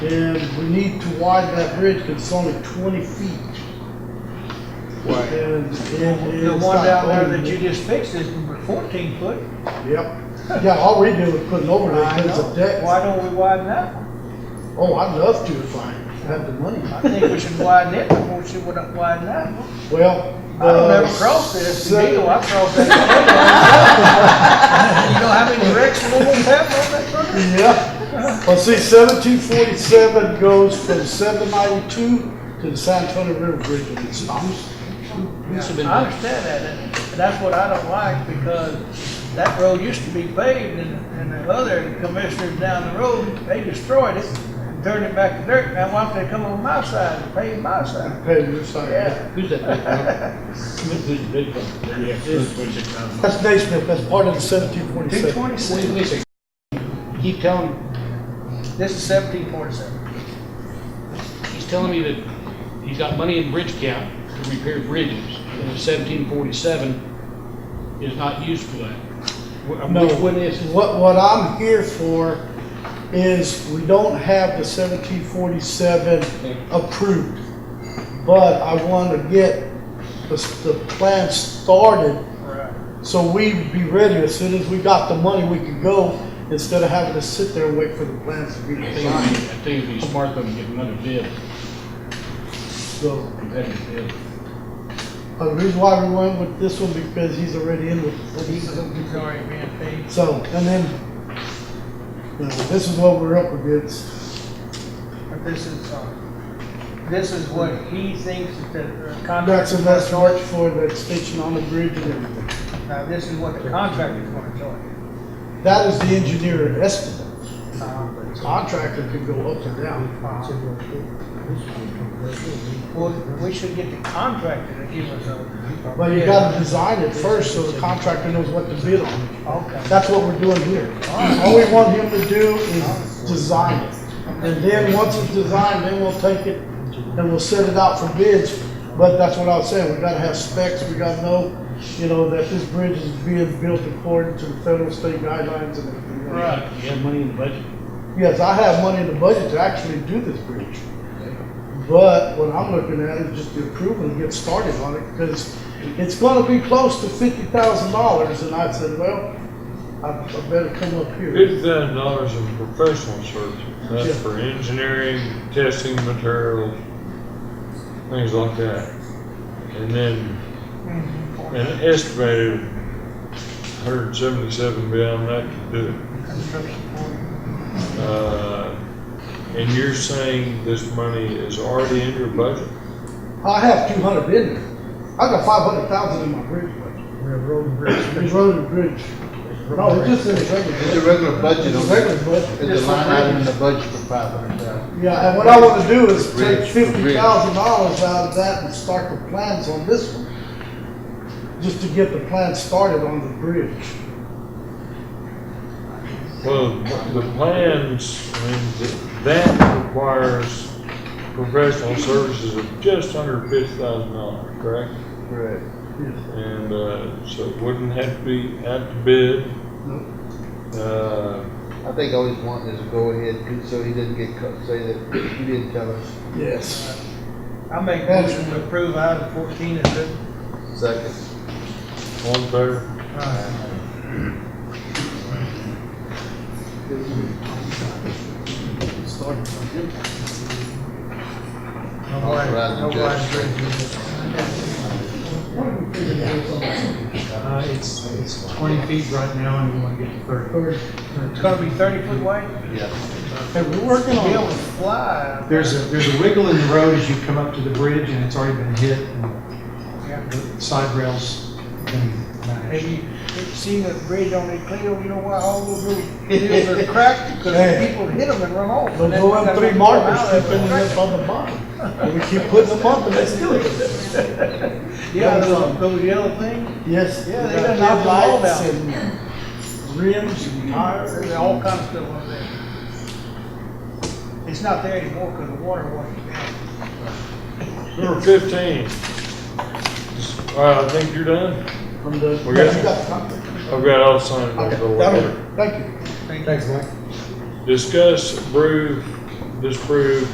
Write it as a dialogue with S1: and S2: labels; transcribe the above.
S1: And we need to widen that bridge because it's only twenty feet.
S2: Right.
S1: And it
S3: The
S1: is
S3: one
S1: not
S3: down there
S1: going
S3: that you
S1: to-
S3: just fixed is fourteen foot.
S1: Yep. Yeah, all we do is put an overlay
S3: I
S1: because
S3: know.
S1: of deck.
S3: Why don't we widen that one?
S1: Oh, I'd love to if I had the money.
S3: I think we should widen it before we should widen that one.
S1: Well.
S3: I don't
S1: the
S3: ever cross this,
S1: se-
S3: deal, I cross that. You know how many wrecks we almost have on that road?
S1: Yeah. Well, see, seventeen forty-seven goes from seven ninety-two to the San Antonio River Bridge and it stops.
S3: I understand that, and and that's what I don't like, because that road used to be paved, and, and the other commissioners down the road, they destroyed it, and turned it back to dirt, now why don't they come on my side and pave my side?
S1: Okay, you're sorry.
S3: Yeah.
S4: Who's that big one? Who's the big one? Yeah, this project, um,
S1: That's Naismith, that's part of the seventeen
S3: Two
S1: forty-seven.
S4: Wait,
S3: twenty-six,
S4: wait a second. Keep telling,
S3: this is seventeen forty-seven.
S4: he's telling me that he's got money in bridge cap to repair bridges, and seventeen forty-seven is not used for that. Wh-
S1: No,
S4: Which one is it?
S1: what, what I'm here for is we don't have the seventeen forty-seven approved. But I wanna get the, s- the plan started
S3: Right.
S1: So we'd be ready, as soon as we got the money, we could go, instead of having to sit there and wait for the plans to be
S4: I think it'd
S1: designed,
S4: be- I think it'd be smart though to get another bid,
S1: so.
S4: competitive bid.
S1: uh, The reason why we went with this one, because he's already in with the police,
S3: It's already being paved.
S1: so, and then, you know, this is what we're up against.
S3: But this is, uh, this is what he thinks that the
S1: That's
S3: contractor
S1: a
S3: is gonna
S1: best charge
S3: charge.
S1: for the extension on the bridge and everything.
S3: Now, this is what the contractor is gonna charge.
S1: That is the engineer estimate,
S3: Um,
S1: contractor could go up and down.
S3: Well, Uh, we should get the contractor to give us a.
S1: But you gotta design it first, so the contractor knows what to bid on.
S3: Okay.
S1: That's what we're doing here. All we want him to do is design it. And then, once it's designed, then we'll take it and we'll set it out for bids. But that's what I was saying, we gotta have specs, we gotta know, you know, that this bridge is being built according to the federal, state guidelines and everything.
S4: You have money in the budget?
S1: Yes, I have money in the budget to actually do this bridge. But what I'm looking at is just the approval and get started on it, because it's gonna be close to fifty thousand dollars, and I said, well, I I better come up here.
S5: Fifty thousand dollars in professional services,
S1: Yeah.
S5: that's for engineering, testing materials, things like that. And then, an estimated hundred and seventy-seven beyond that to do it. Uh, And you're saying this money is already in your budget?
S1: I have two hundred in there. I got five hundred thousand in my bridge budget. It's road and bridge. No, it's just in the regular.
S6: It's a regular budget.
S1: It's a regular budget.
S6: It's a line item in the budget for five hundred thousand.
S1: Yeah, and what I wanna do is
S6: Bridge,
S1: take
S6: bridge.
S1: fifty thousand dollars out of that and start the plans on this one. Just to get the plan started on the bridge.
S5: Well, the plans, I mean, th- that requires professional services of just under fifty thousand dollars, correct?
S6: Right.
S5: And, uh, so it wouldn't have to be out to bid.
S1: Nope.
S5: Uh,
S6: I think all he's wanting is a go-ahead, so he didn't get, cut- say that, you didn't tell us.
S1: Yes.
S3: I make a motion to approve item fourteen is it?
S6: Second.
S5: all in favor?
S3: No blind, no blind bridges.
S7: Uh, it's, it's twenty feet right now and we want to get to thirty.
S1: Or-
S3: It's gonna be thirty foot wide?
S6: Yeah.
S1: Hey, we're working
S3: Be able
S1: on
S3: to
S1: it.
S3: fly.
S7: There's a, there's a wiggle in the road as you come up to the bridge and it's already been hit and
S3: Yeah.
S7: the side rails uh, have been
S3: Have
S7: smashed.
S3: you seen the bridge on the Cleo, you know why all those little hills are cracked? Because
S1: Yeah.
S3: people hit them and run off.
S1: But
S3: And then
S1: no
S3: when
S1: one
S3: they
S1: three
S3: come
S1: markers
S3: out,
S1: keep
S3: they're
S1: putting
S3: cracked.
S1: up on the bottom. And we keep putting them up and they still.
S3: Yeah, those those yellow things,
S1: Yes.
S3: Yeah, they
S1: we got
S3: done knocked them all
S1: headlights
S3: down.
S1: and Rims and tires.
S3: there's all kinds of stuff on there. It's not there anymore because the water washed it down.
S5: Number fifteen. All right, I think you're done.
S1: From the.
S5: We got-
S1: You got something?
S5: I've got all signed.
S1: Okay,
S5: over
S1: that'll,
S5: later.
S1: work. thank you.
S3: Thank you.
S7: Thanks, Mike.
S5: Discuss, approve disproved